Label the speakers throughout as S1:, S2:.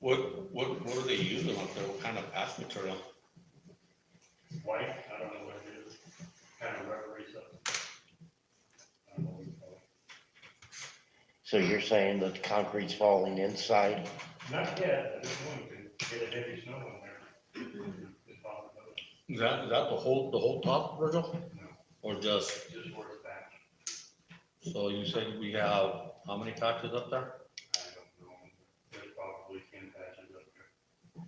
S1: What, what, what are they using up there? What kind of patch material?
S2: white, I don't know what it is, kind of rubbery stuff. I don't know what you call
S3: So you're saying that the concrete's falling inside?
S2: it. Not yet, I just wanted to get a heavy snow in there. It's possible,
S1: Is that, is that the whole, the whole top, Virgil?
S2: No.
S1: Or just,
S2: just where it's back,
S1: so you said we have, how many patches up there?
S2: I don't know, there's probably ten patches up there.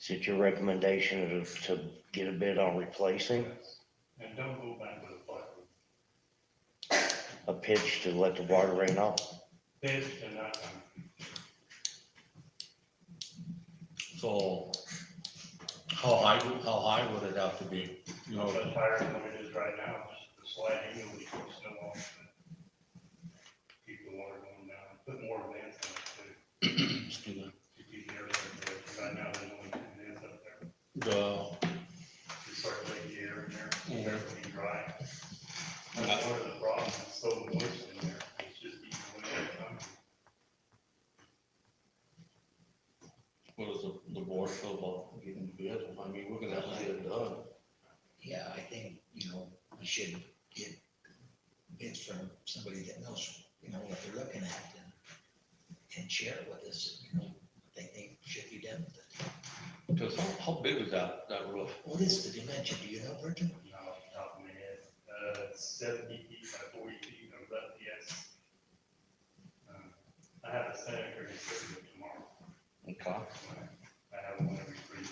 S3: Is it your recommendation to, to get a bid on replacing
S2: And don't go back to the plywood,
S3: a pitch to let the water rain off?
S2: this and not, um,
S1: So how high, would- how high would it have to be? You know,
S2: much higher than what it is right now, just the sliding, you know, we put snow on. it. Keep the water going down, put more vents on it too,
S1: excuse me,
S2: to keep the air circulating, right now there's only two vents up there.
S1: the,
S2: to circulate the air in there,
S1: Mhm.
S2: air to be dry. That's part of the problem, it's so moist in there, it's just eating away at the concrete.
S1: what is the, the board feel about getting bid? I mean, we're gonna have to get it done.
S4: Yeah, I think, you know, we should get bids from somebody that knows, you know, what they're looking at and, and share it with us, you know, what they think should be done with it.
S1: Cause how, how big is that, that roof?
S4: What is the dimension, do you know, Virgil?
S2: Now, off the top of my head, uh, seventy feet by forty feet, I was up, yes. Um, I have a senator in Serbia tomorrow,
S3: Okay.
S2: I have one every three years.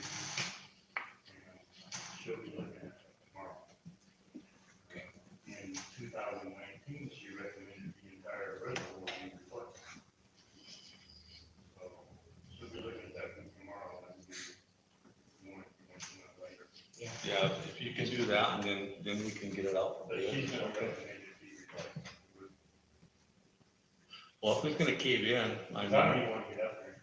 S2: And She'll be looking at it tomorrow.
S4: Okay.
S2: In two thousand nineteen, she recommended the entire reservoir be replaced. So she'll be looking at that one tomorrow, and we want to, want to know later.
S1: Yeah, if you can do that and then, then we can get it out. for
S2: But
S1: bid.
S2: she's gonna recommend it be replaced.
S1: Well, if it's gonna cave in, I
S2: Not
S1: mean,
S2: anyone get up there.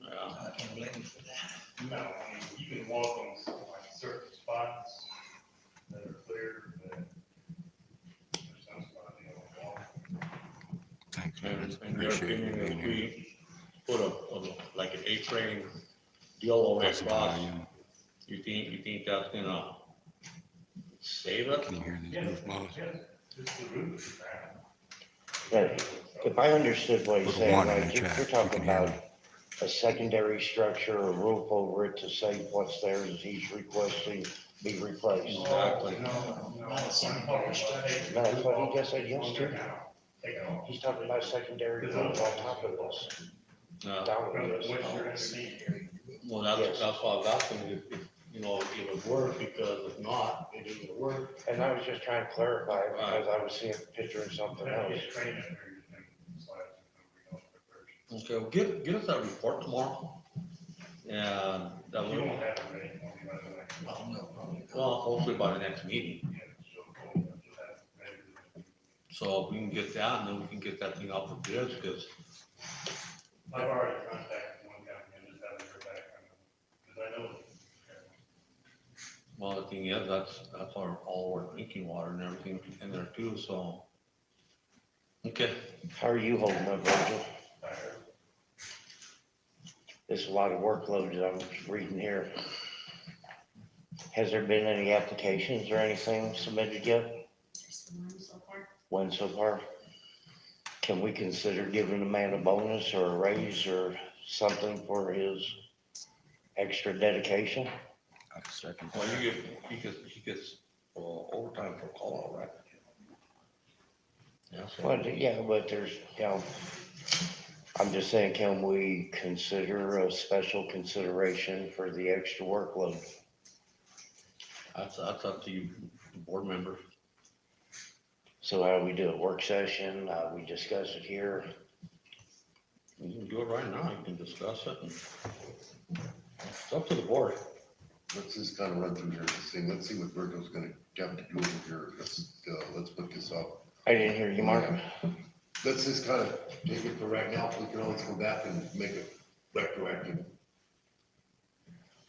S1: yeah.
S4: I can't blame you for that.
S2: No, I mean, you can walk on some, like certain spots that are clear, but there's some spots you don't walk.
S5: Thanks, man.
S1: And in their
S5: Appreciate you
S1: opinion,
S5: being
S1: if
S5: here.
S1: we put a, a- like an A-frame deal over
S5: That's
S1: across,
S5: Italian.
S1: you think, you think that's gonna save it?
S5: Can you hear the roof blows?
S2: Yes, just the roof is bad.
S3: Right. If I understood what you're
S5: Little
S3: saying,
S5: one in
S3: right,
S5: the
S3: you're
S5: chat,
S3: you're
S5: you
S3: talking
S5: can hear
S3: about a secondary structure, a roof over it to save what's there as he's requesting be replaced.
S1: Exactly.
S2: No, no.
S4: Not a cemetery structure.
S3: No, that's what he just said
S2: Under
S3: yesterday.
S2: now, Take it off.
S3: He's talking about a secondary roof on top of this,
S1: No,
S3: down
S2: But what's
S3: with this.
S2: your estimate?
S4: Cemetery.
S1: Uh, well, that's, that's why I was asking if, if, you know, if it would work, because if not, it isn't gonna work.
S3: And I was just trying to clarify because I was seeing a picture of something
S2: That
S3: else.
S2: is training there, you think, slides are coming off the first.
S1: Okay, well, get, get us that report tomorrow. And that
S2: You
S1: will,
S2: won't have it ready for me by the way.
S4: Well, no, probably not.
S1: well, hopefully by the next meeting.
S2: Yeah, she'll, she'll have it ready.
S1: So if we can get that, and then we can get that thing out for bids, because
S2: I've already contacted one guy and just haven't heard back from him, because I know.
S1: Well, the thing is, that's, that's our, all our drinking water and everything in there too, so. Okay,
S3: How are you holding up, Virgil?
S2: I heard,
S3: There's a lot of workload that I'm reading here. Has there been any applications or anything submitted yet?
S6: Just the one so far.
S3: When so far? Can we consider giving the man a bonus or a raise or something for his extra dedication?
S5: I second
S1: well,
S5: that.
S1: you get, he gets, he gets uh, overtime for call out, right? Yeah, so,
S3: Well, yeah, but there's, you know, I'm just saying, can we consider a special consideration for the extra workload?
S1: that's, that's up to you, the board member.
S3: So how do we do a work session? Uh, we discuss it here.
S1: You can do it right now, you can discuss it. and- It's up to the board.
S7: Let's just kind of run through here, just saying, let's see what Virgil's gonna have to do over here, let's, uh, let's put this up.
S3: I didn't hear you, Mark.
S7: Let's just kind of take it for right now, we can always go back and make it retroactive